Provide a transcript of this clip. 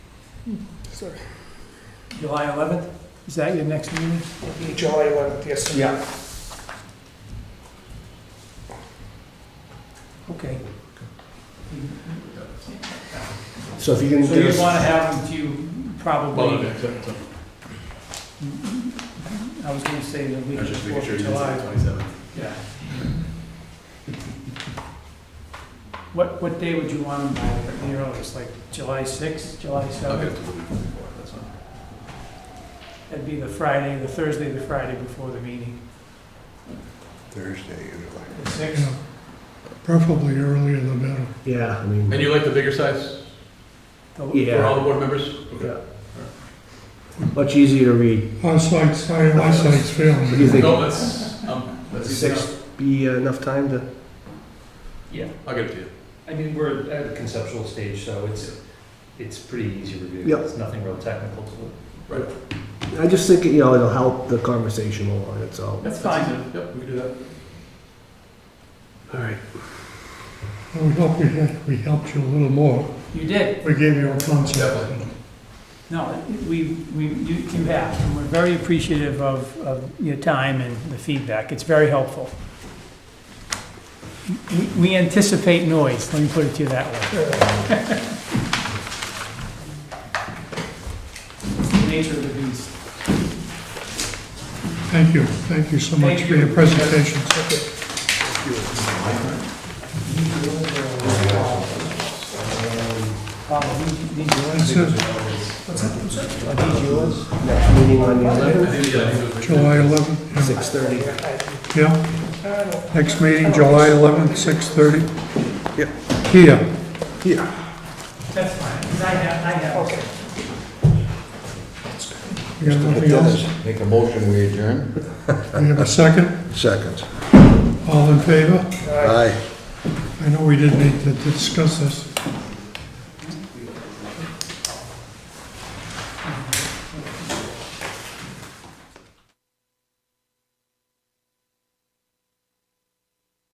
Sorry. July 11th, is that your next meeting? It'll be July 11th, yes. sir. Yeah. Okay. So if you can So give you us, want to have them to you probably, I was going to say the week of just making 4th sure of you didn't say July. twenty-seven. Yeah. What, what day would you want them by, the earliest, like July 6th, July I'll get 7th? it to the week before, that's fine. That'd be the Friday, the Thursday, the Friday before the meeting, Thursday usually. the 6th. Preferably earlier the better. yeah, I And mean, you like the bigger size The- for all yeah, the board members? Yeah. much easier to read. Eyesight's, my What eyesight's do you failing. think? No, that's, um, that's Does easy enough. six be uh, enough time to? I'll get it to you. I mean, we're at a conceptual stage, so it's, it's pretty easy review. Yep. It's nothing real technical to it. Right. I just think, you know, it'll help the conversation along, that's all. That's fine. easy. Yep, we can do that. All right. We hope we had, we helped you a little more. You did. We gave you a concept. Definitely. No, we, we, you you have, and we're very appreciative of, of your time and the feedback. It's very helpful. We- We anticipate noise, let me put it to you that way. It's the nature of the beast. Thank you, thank you so much Thank for you. your presentation. That's it, Next meeting on the I 11th, think, yeah, I think it was- July 11th, 6:30. yeah. Yeah. Next meeting, July 11th, 6:30. Yeah. Here. That's fine, 'cause I have, I have. Okay. You got nothing else? Make a motion, we adjourn? We have a second? Second. All in favor? Aye. I know we didn't need to discuss this.